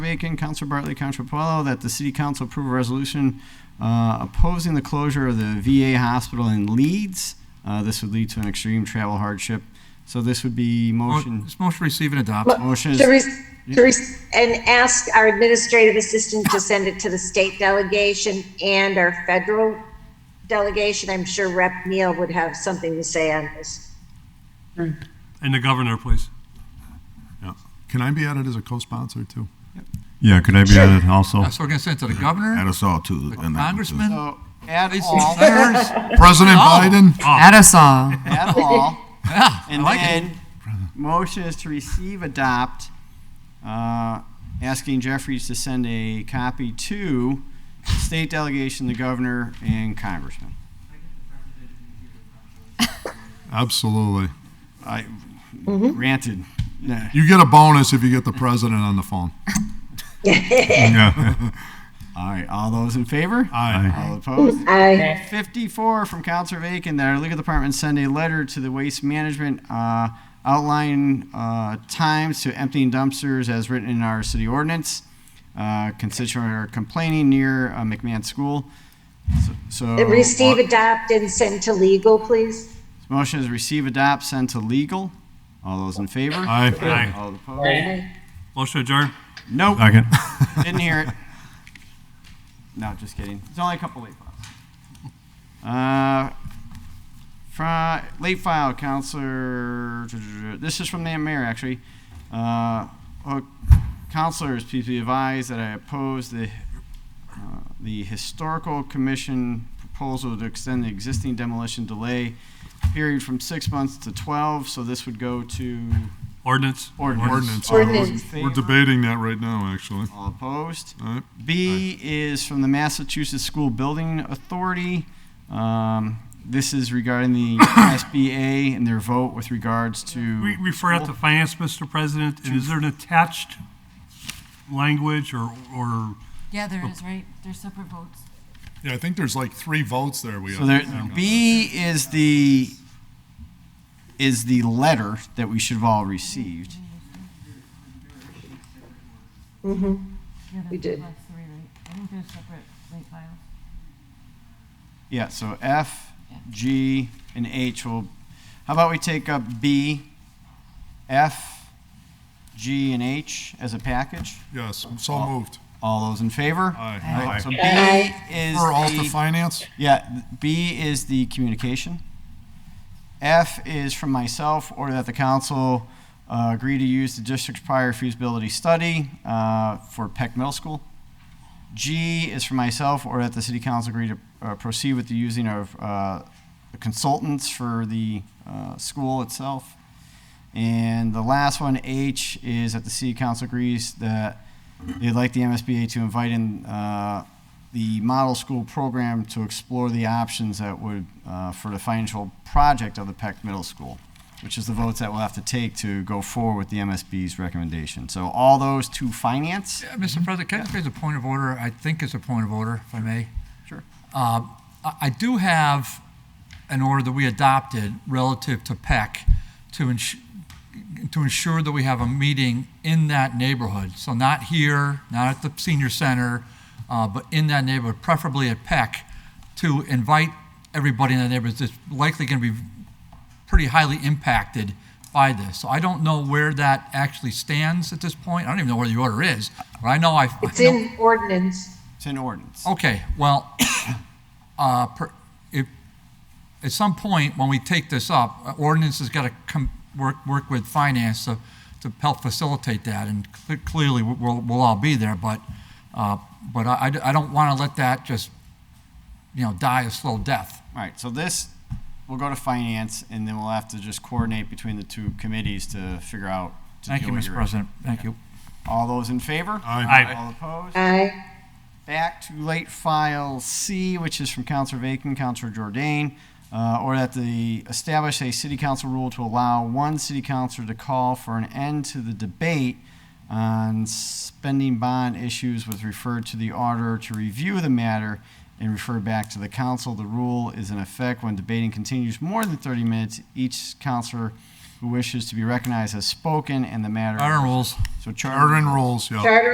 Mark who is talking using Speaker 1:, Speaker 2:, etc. Speaker 1: Aiken, Councilor Bartley, Councilor Puelo, that the city council approve a resolution uh, opposing the closure of the VA hospital in Leeds. Uh, This would lead to an extreme travel hardship. So this would be motion.
Speaker 2: This motion receive and adopt.
Speaker 3: Mo-
Speaker 1: Motion is-
Speaker 3: to re- to re- And ask our administrative assistant to send it to the state delegation and our federal delegation. I'm sure Rep. Neal would have something to say on this.
Speaker 4: And the governor, please.
Speaker 5: Yeah. Can I be added as a co-sponsor too?
Speaker 6: Yeah, could I be
Speaker 3: Sure.
Speaker 6: added also?
Speaker 2: So we're going to send it to the governor,
Speaker 5: Add us all too.
Speaker 2: the congressman,
Speaker 1: So Add
Speaker 2: these
Speaker 1: all,
Speaker 2: senators.
Speaker 5: President
Speaker 2: Oh.
Speaker 5: Biden.
Speaker 7: At us all.
Speaker 1: add all.
Speaker 2: Yeah, I
Speaker 1: And
Speaker 2: like it.
Speaker 1: then, motion is to receive, adopt, uh, asking Jeffries to send a copy to state delegation, the governor, and congressman.
Speaker 5: Absolutely.
Speaker 1: I ranted. Nah.
Speaker 5: You get a bonus if you get the president on the phone.
Speaker 6: Yeah.
Speaker 1: All right, all those in favor?
Speaker 5: Aye.
Speaker 1: All opposed?
Speaker 3: I,
Speaker 1: 54 from Counselor Bacon that our legal department send a letter to the waste management uh, outline uh, times to emptying dumpsters as written in our city ordinance. Uh, Constituent are complaining near uh, McMahon School. So, so-
Speaker 3: receive,
Speaker 2: Uh,
Speaker 3: adopt, and send to legal, please.
Speaker 1: Motion is receive, adopt, send to legal. All those in favor?
Speaker 5: Aye.
Speaker 4: Aye.
Speaker 1: All opposed?
Speaker 4: Motion adjourned.
Speaker 1: Nope,
Speaker 6: Second.
Speaker 1: didn't hear it. No, just kidding. There's only a couple late files. Uh, fri- late file, Counselor. This is from the mayor, actually. Uh, oh, counselors, please be advised that I oppose the uh, the historical commission proposal to extend the existing demolition delay period from six months to twelve. So this would go to
Speaker 4: Ordinance.
Speaker 5: Ordinance.
Speaker 1: All those in
Speaker 3: Ordinance.
Speaker 5: We're
Speaker 1: favor?
Speaker 5: debating that right now, actually.
Speaker 1: All opposed?
Speaker 5: All right.
Speaker 1: B is from the Massachusetts School Building Authority. Um, This is regarding the SBA and their vote with regards
Speaker 4: We
Speaker 1: to,
Speaker 4: refer out to finance, Mr. President, and is there an attached language or, or?
Speaker 7: Yeah,
Speaker 4: Oh.
Speaker 7: there is, right? There's separate votes.
Speaker 5: Yeah, I think there's like three votes there. We
Speaker 1: so there, B is the, is the letter that we should have all received.
Speaker 7: Yeah,
Speaker 3: We
Speaker 7: there's
Speaker 3: did.
Speaker 7: like three, right? I think there's separate late files.
Speaker 1: Yeah, so F, G, and H will, how about we take up B, F, G, and H as a package?
Speaker 5: Yes, so moved.
Speaker 1: All those in favor?
Speaker 5: Aye.
Speaker 1: So B
Speaker 3: Aye.
Speaker 1: is
Speaker 5: For all to
Speaker 1: the-
Speaker 5: finance?
Speaker 1: Yeah, th- B is the communication. F is from myself, or that the council uh, agree to use the district's prior feasibility study uh, for Peck Middle School. G is from myself, or that the city council agree to uh, proceed with the using of uh, consultants for the uh, school itself. And the last one, H, is that the city council agrees that they'd like the MSBA to invite in uh, the model school program to explore the options that would, uh, for the financial project of the Peck Middle School, which is the votes that we'll have to take to go forward with the MSB's recommendation. So all those to finance?
Speaker 2: Yeah, Mr. President, can I just raise a point of order? I think it's a point of order, if I may.
Speaker 1: Sure.
Speaker 2: Um, I I do have an order that we adopted relative to PEC to ensure, to ensure that we have a meeting in that neighborhood. So not here, not at the senior center, uh, but in that neighborhood, preferably at PEC, to invite everybody in the neighborhood that's likely going to be pretty highly impacted by this. So I don't know where that actually stands at this point. I don't even know where the order is, but I know I. I
Speaker 3: It's
Speaker 2: know-
Speaker 3: in ordinance.
Speaker 1: It's in ordinance.
Speaker 2: Okay, well, uh, per- if, at some point, when we take this up, uh, ordinance has got to come, work, work with finance to, to help facilitate that, and cle- clearly, we- we'll, we'll all be there, but, uh, but I, I d- I don't want to let that just, you know, die a slow death.
Speaker 1: All right, so this, we'll go to finance, and then we'll have to just coordinate between the two committees to figure out. to
Speaker 2: Thank you,
Speaker 1: deal with
Speaker 2: Mr.
Speaker 1: your-
Speaker 2: President, thank you.
Speaker 1: All those in favor?
Speaker 4: Aye.
Speaker 1: All opposed?
Speaker 3: Aye.
Speaker 1: Back to late file C, which is from Counselor Bacon, Counselor Jordan, uh, or that the establish a city council rule to allow one city councilor to call for an end to the debate on spending bond issues was referred to the auditor to review the matter and refer back to the council. The rule is in effect when debating continues more than 30 minutes. Each councilor who wishes to be recognized has spoken and the matter.
Speaker 2: Iron rules.
Speaker 1: So Charter
Speaker 5: Charter and rules, yeah.
Speaker 3: Charter